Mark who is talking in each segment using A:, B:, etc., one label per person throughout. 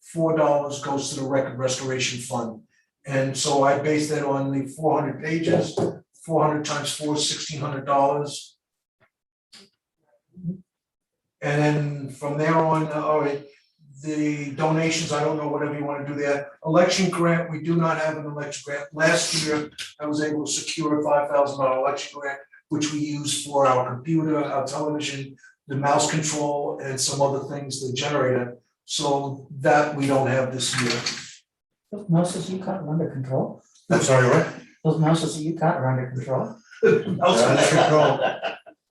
A: four dollars goes to the record restoration fund. And so I base that on the four hundred pages, four hundred times four is sixteen hundred dollars. And then from there on, uh, all right, the donations, I don't know, whatever you wanna do there. Election grant, we do not have an election grant. Last year, I was able to secure a five thousand dollar election grant, which we use for our computer, our television, the mouse control, and some other things, the generator. So that we don't have this year.
B: Those mouses you caught are under control,
A: I'm sorry, what?
B: those mouses that you caught are under control.
C: That's control.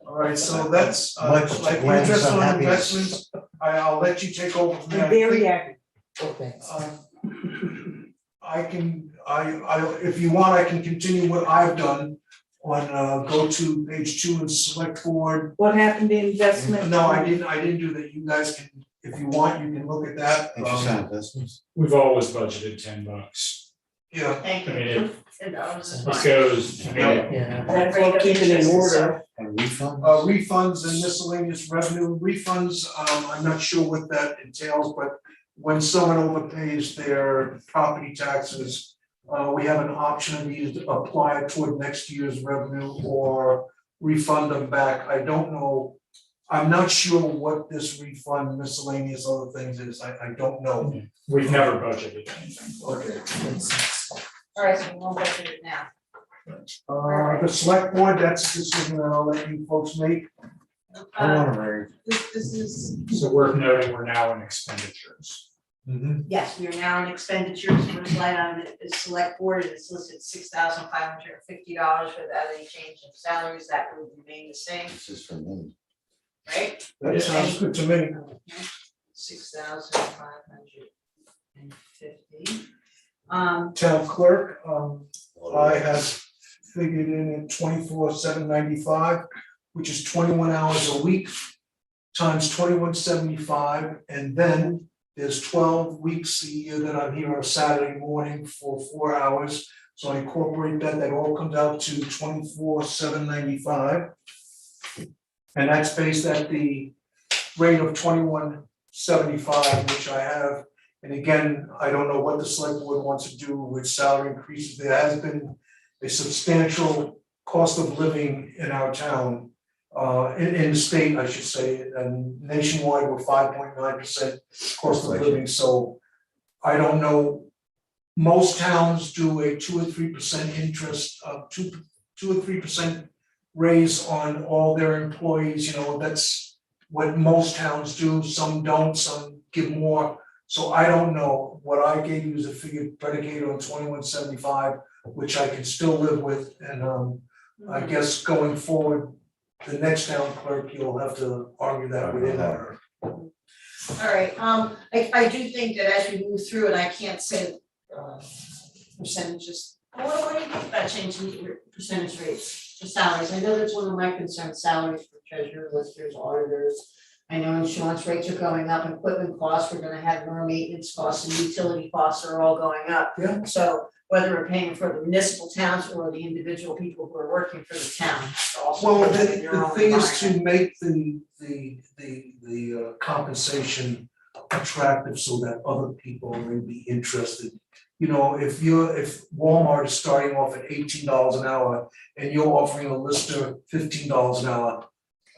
A: Alright, so that's, uh,
C: Much to
A: like,
C: Glenn's
A: interest on
C: unhappiness.
A: investments, I, I'll let you take over from there. I think-
B: Very active. Oh, thanks.
A: Um, I can, I, I, if you want, I can continue what I've done on, uh, go to page two and select board.
D: What happened to investment?
A: No, I didn't, I didn't do that, you guys can, if you want, you can look at that, um,
C: Interesting business.
E: We've always budgeted ten bucks.
A: yeah,
F: Thank
E: I mean,
F: you.
E: it-
F: And I was just
E: This
F: wondering.
E: goes, I mean,
B: Yeah,
D: That's what keep it in order.
C: And refund?
A: uh, refunds and miscellaneous revenue, refunds, um, I'm not sure what that entails, but when someone overpays their property taxes, uh, we have an option of either to apply it toward next year's revenue or refund them back, I don't know. I'm not sure what this refund miscellaneous other things is, I, I don't know.
E: we've never budgeted anything.
A: Okay.
F: All right, so we won't go through it now.
A: Uh, the select board, that's a decision that I'll let you folks make,
F: Uh,
C: Honorary.
F: This, this is,
E: So worth noting, we're now in expenditures.
C: Mhm.
F: yes, we are now in expenditures, first line on the, the select board, and it's listed six thousand five hundred and fifty dollars without any change in salaries, that would remain the same,
C: This is for me.
F: right?
A: that sounds good to me.
F: Six thousand five hundred and fifty. Um,
A: Town clerk, um, I have figured in at twenty-four, seven ninety-five, which is twenty-one hours a week, times twenty-one seventy-five, and then there's twelve weeks a year that I'm here on a Saturday morning for four hours. So I incorporate that, that all comes out to twenty-four, seven ninety-five. And that's based at the rate of twenty-one seventy-five, which I have and again, I don't know what the select board wants to do with salary increases. There has been a substantial cost of living in our town, uh, in, in the state, I should say, and nationwide, we're five point nine percent cost of living, so I don't know. Most towns do a two or three percent interest, uh, two, two or three percent raise on all their employees, you know, that's what most towns do, some don't, some give more. So I don't know, what I gave you is a figure predicated on twenty-one seventy-five, which I can still live with, and um, I guess going forward, the next town clerk, you'll have to argue that with him or
F: All right, um, I, I do think that as we move through, and I can't say, uh, percentages, what, what do you think about changing your percentage rates for salaries? I know that's one of my concerns, salaries for treasurers, listers, auditors. I know insurance rates are going up, equipment costs, we're gonna have more maintenance costs and utility costs are all going up.
A: Yeah.
F: So whether we're paying for the municipal towns or the individual people who are working for the town, it's also
A: Well, the
F: in your
A: the
F: own
A: thing is
F: mind.
A: to make the the the the uh, compensation attractive so that other people may be interested. You know, if you're, if Walmart is starting off at eighteen dollars an hour and you're offering a lister fifteen dollars an hour,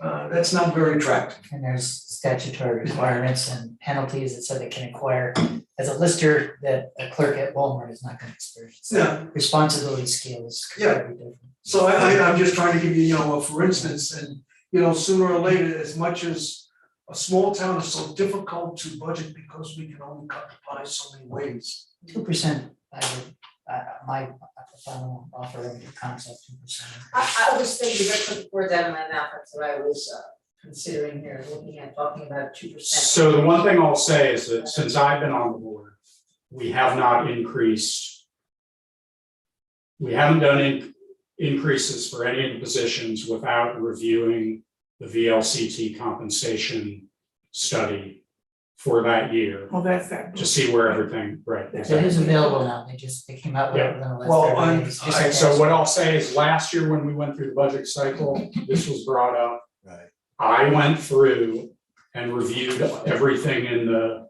A: uh, that's not very attractive.
B: and there's statutory requirements and penalties that said they can acquire, as a lister, that a clerk at Walmart is not gonna experience. So
A: Yeah,
B: Responsibility scales could
A: Yeah.
B: be different.
A: so I, I, I'm just trying to give you, you know, a for instance, and, you know, sooner or later, as much as a small town is so difficult to budget because we can only cut the pie so many ways.
B: Two percent, I would, uh, my final offer of the concept, two percent.
F: I I was thinking, I put the word down in my mouth, that's what I was uh considering here, looking at talking about two percent.
E: So the one thing I'll say is that since I've been on the board, we have not increased. We haven't done in- increases for any of the positions without reviewing the VLCT compensation study for that year
D: Well, that's that.
E: to see where everything, right.
B: So it is available now, they just, they came out with it within the
A: Well,
B: last
A: I'm-
B: thirty days. just
E: Alright,
B: like
E: so
B: that.
E: what I'll say is last year when we went through the budget cycle, this was brought up.
C: Right.
E: I went through and reviewed everything in the